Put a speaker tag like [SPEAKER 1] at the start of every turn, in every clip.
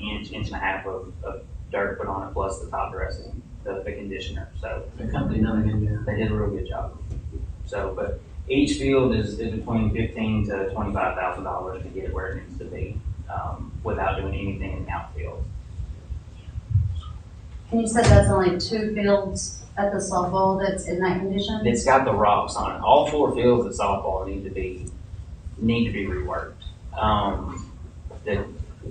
[SPEAKER 1] inch, inch and a half of, of dirt put on it, plus the top dressing, the, the conditioner, so
[SPEAKER 2] The company done it again,
[SPEAKER 1] they did a real good job. So, but each field is, is between fifteen to twenty-five thousand dollars to get it where it needs to be, um, without doing anything in the outfield.
[SPEAKER 3] And you said that's only two fields at the softball that's in that condition?
[SPEAKER 1] It's got the rocks on it. All four fields of softball need to be, need to be reworked. Um, the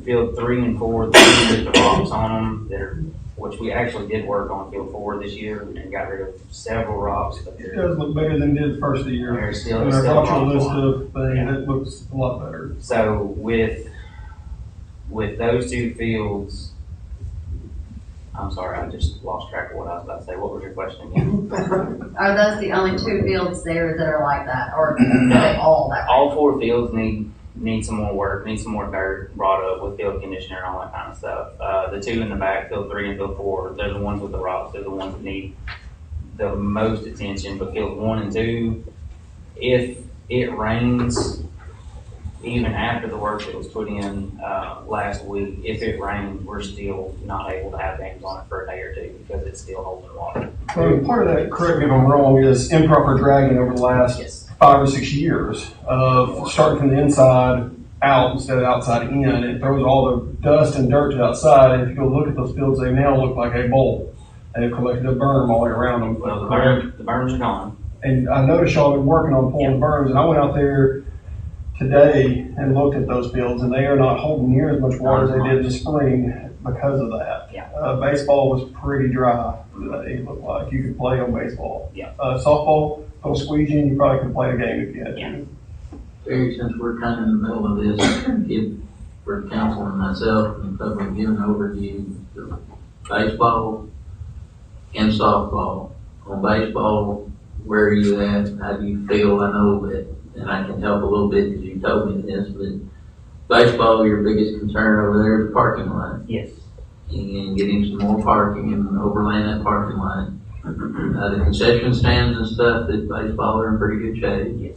[SPEAKER 1] field three and four, there's the rocks on them that are, which we actually did work on field four this year and got rid of several rocks, but
[SPEAKER 4] It
[SPEAKER 1] they're,
[SPEAKER 4] does look better than it did the first of the year.
[SPEAKER 1] they're still,
[SPEAKER 4] And
[SPEAKER 1] they're
[SPEAKER 4] our
[SPEAKER 1] still rocks
[SPEAKER 4] cultural list
[SPEAKER 1] on.
[SPEAKER 4] of things, it looks a lot better.
[SPEAKER 1] So with, with those two fields, I'm sorry, I just lost track of what I was about to say. What was your question again?
[SPEAKER 3] Are those the only two fields there that are like that, or are they all that?
[SPEAKER 1] all four fields need need some more work, need some more dirt brought up with field conditioner and all that kind of stuff. Uh, the two in the back, field three and field four, they're the ones with the rocks. They're the ones that need the most attention. But field one and two, if it rains, even after the work that was put in uh, last week, if it rains, we're still not able to have games on it for a day or two because it's still holding water.
[SPEAKER 4] Well, part of that, correct me if I'm wrong, is improper dragging over the last
[SPEAKER 1] Yes.
[SPEAKER 4] five or six years of starting from the inside out instead of outside in. It throws all the dust and dirt to the outside. And if you go look at those fields, they now look like a bowl. They've collected a berm all the way around them.
[SPEAKER 1] Well, the berms, the berms are gone.
[SPEAKER 4] And I noticed y'all been working on pulling berms, and I went out there today and looked at those fields, and they are not holding near as much water as they did in the spring because of that.
[SPEAKER 1] Yeah.
[SPEAKER 4] Uh, baseball was pretty dry, uh, it looked like, you could play on baseball.
[SPEAKER 1] Yeah.
[SPEAKER 4] Uh, softball, don't squeeze in, you probably could play a game if you had
[SPEAKER 1] Yeah.
[SPEAKER 4] to.
[SPEAKER 2] Terry, since we're kind of in the middle of this, give, for council and myself and public, give an overview of baseball and softball. On baseball, where are you at, how do you feel, I know that, and I can help a little bit because you told me this, but baseball, your biggest concern over there is parking lot.
[SPEAKER 1] Yes.
[SPEAKER 2] and getting some more parking and overlaying that parking lot. Uh, the concession stands and stuff at baseball are in pretty good shape,
[SPEAKER 1] Yes.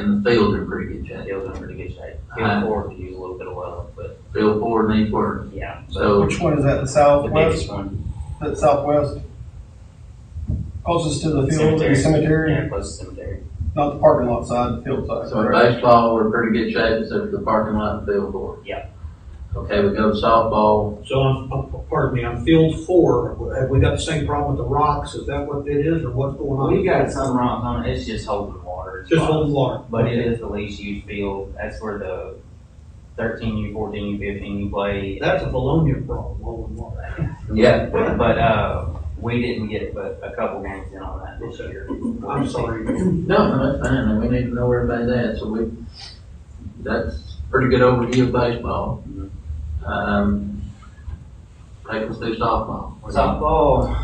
[SPEAKER 2] and the fields are in pretty good shape.
[SPEAKER 1] Fields are in pretty good shape.
[SPEAKER 2] Uh,
[SPEAKER 1] Field four could use a little bit of love, but
[SPEAKER 2] Field four needs work,
[SPEAKER 1] yeah. But
[SPEAKER 2] so
[SPEAKER 4] Which one is that, the
[SPEAKER 5] Uh,
[SPEAKER 1] the biggest
[SPEAKER 4] southwest,
[SPEAKER 1] one,
[SPEAKER 4] that southwest? Closest to the field,
[SPEAKER 1] Cemetery.
[SPEAKER 4] the cemetery,
[SPEAKER 1] yeah, close to cemetery.
[SPEAKER 4] not the parking lot side, the field side.
[SPEAKER 2] so at
[SPEAKER 4] correct?
[SPEAKER 2] baseball, we're in pretty good shape except for the parking lot and field four.
[SPEAKER 1] Yeah.
[SPEAKER 2] Okay, we go to softball,
[SPEAKER 5] So on, on- pardon me, on field four, have we got the same problem with the rocks? Is that what it is or what's going
[SPEAKER 1] We've
[SPEAKER 5] on?
[SPEAKER 1] got some rocks on it, it's just holding water. It's
[SPEAKER 5] Just
[SPEAKER 1] fine.
[SPEAKER 5] one water.
[SPEAKER 1] But it is the least used field, that's where the thirteen U, fourteen U, fifteen U play.
[SPEAKER 5] That's a Bologna problem, all in water.
[SPEAKER 2] yeah,
[SPEAKER 1] But, uh, we didn't get but a couple games in on that this year.
[SPEAKER 5] I'm sorry.
[SPEAKER 2] No, no, that's fine, and we need to know everybody that, so we, that's pretty good overview of baseball.
[SPEAKER 1] Mhm.
[SPEAKER 2] Um, take us through softball.
[SPEAKER 1] Softball,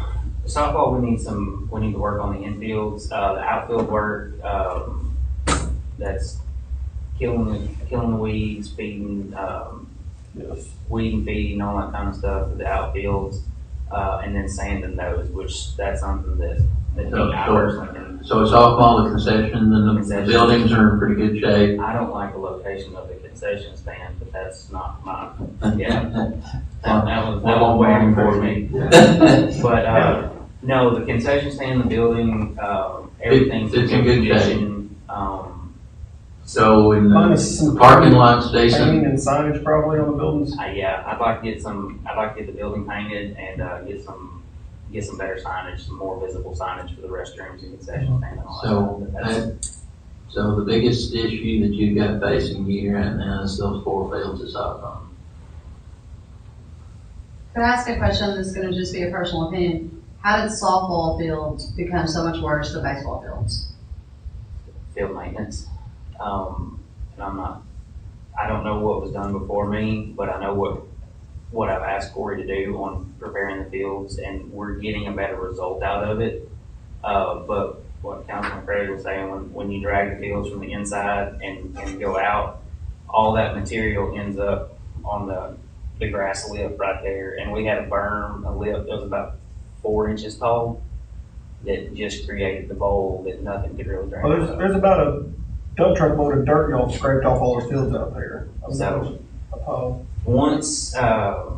[SPEAKER 1] softball, Oh, we need some, we need to work on the infields, uh, the outfield work, um, that's killing, the killing the weeds, feeding, um,
[SPEAKER 4] Yes.
[SPEAKER 1] weed and feeding, all that kind of stuff, for the outfields, uh, and then sanding those, which that's something that, that
[SPEAKER 2] Oh,
[SPEAKER 1] took hours. and
[SPEAKER 2] So softball, the concessions and the
[SPEAKER 1] Concessions.
[SPEAKER 2] buildings are in pretty good shape.
[SPEAKER 1] I don't like the location of the concession stand, but that's not my, yeah, that,
[SPEAKER 2] Well,
[SPEAKER 1] that was, that was waiting for me. But, uh, no, the concession stand, the building, um, everything's in
[SPEAKER 2] it's in
[SPEAKER 1] good
[SPEAKER 2] good shape.
[SPEAKER 1] condition. Um,
[SPEAKER 2] So in the
[SPEAKER 4] Minus some.
[SPEAKER 2] parking lot's decent,
[SPEAKER 4] Painting and signage probably on the buildings.
[SPEAKER 1] I, yeah, I'd like to get some, I'd like to get the building painted and, uh, get some, get some better signage, some more visible signage for the restrooms and concession stand and all that.
[SPEAKER 2] So,
[SPEAKER 1] But that's-
[SPEAKER 2] that, so the biggest issue that you've got facing you right now is those four fields of softball.
[SPEAKER 3] Could I ask a question that's gonna just be a personal opinion? How did softball fields become so much worse than baseball fields?
[SPEAKER 1] field maintenance. Um, and I'm not, I don't know what was done before me, but I know what, what I've asked Corey to do on preparing the fields and we're getting a better result out of it. Uh, but what Councilman Craig was saying, when, when you drag the fields from the inside and, and go out, all that material ends up on the, the grass lip right there. And we had a berm, a lip that was about four inches tall that just created the bowl that nothing could really drain.
[SPEAKER 4] Well,
[SPEAKER 1] out of.
[SPEAKER 4] there's, there's about a dump truck load of dirt y'all scraped off all the fields out there.
[SPEAKER 1] So-
[SPEAKER 4] Uh,
[SPEAKER 1] Once, uh,